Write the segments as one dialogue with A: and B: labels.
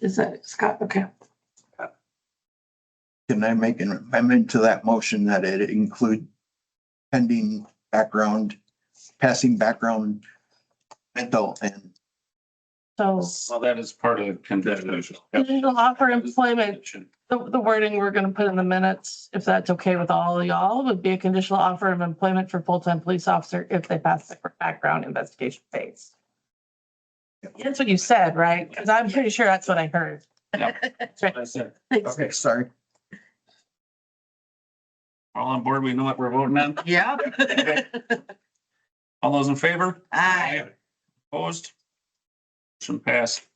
A: Is that Scott? Okay.
B: Can I make an amendment to that motion that it include pending background, passing background, mental and
A: So
C: Well, that is part of the condition.
A: legal offer employment, the, the wording we're going to put in the minutes, if that's okay with all of y'all, would be a conditional offer of employment for full-time police officer if they pass the background investigation phase. That's what you said, right? Because I'm pretty sure that's what I heard.
C: That's it.
A: Thanks.
B: Okay, sorry.
C: All on board, we know what we're voting on.
D: Yeah.
C: All those in favor?
D: Aye.
C: Opposed? Motion passed.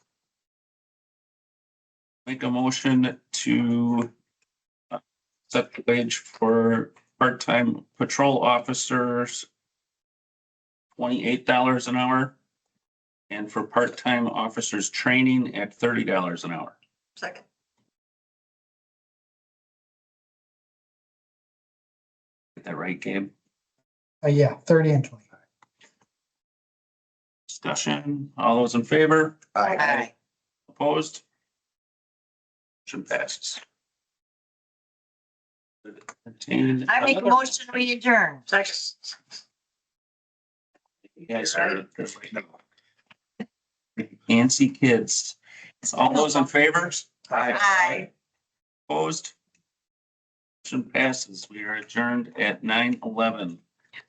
C: Make a motion to uh, set the wage for part-time patrol officers twenty-eight dollars an hour and for part-time officers training at thirty dollars an hour.
D: Second.
C: Get that right, Gabe?
E: Uh, yeah, thirty and twenty.
C: Discussion. All those in favor?
B: Aye.
D: Aye.
C: Opposed? Motion passes. Entertain
D: I make a
C: another-
D: motion, we adjourn. Second.
C: Yes, sir. Nancy kids. All those in favor?
D: Aye.
C: Opposed? Motion passes. We are adjourned at nine eleven.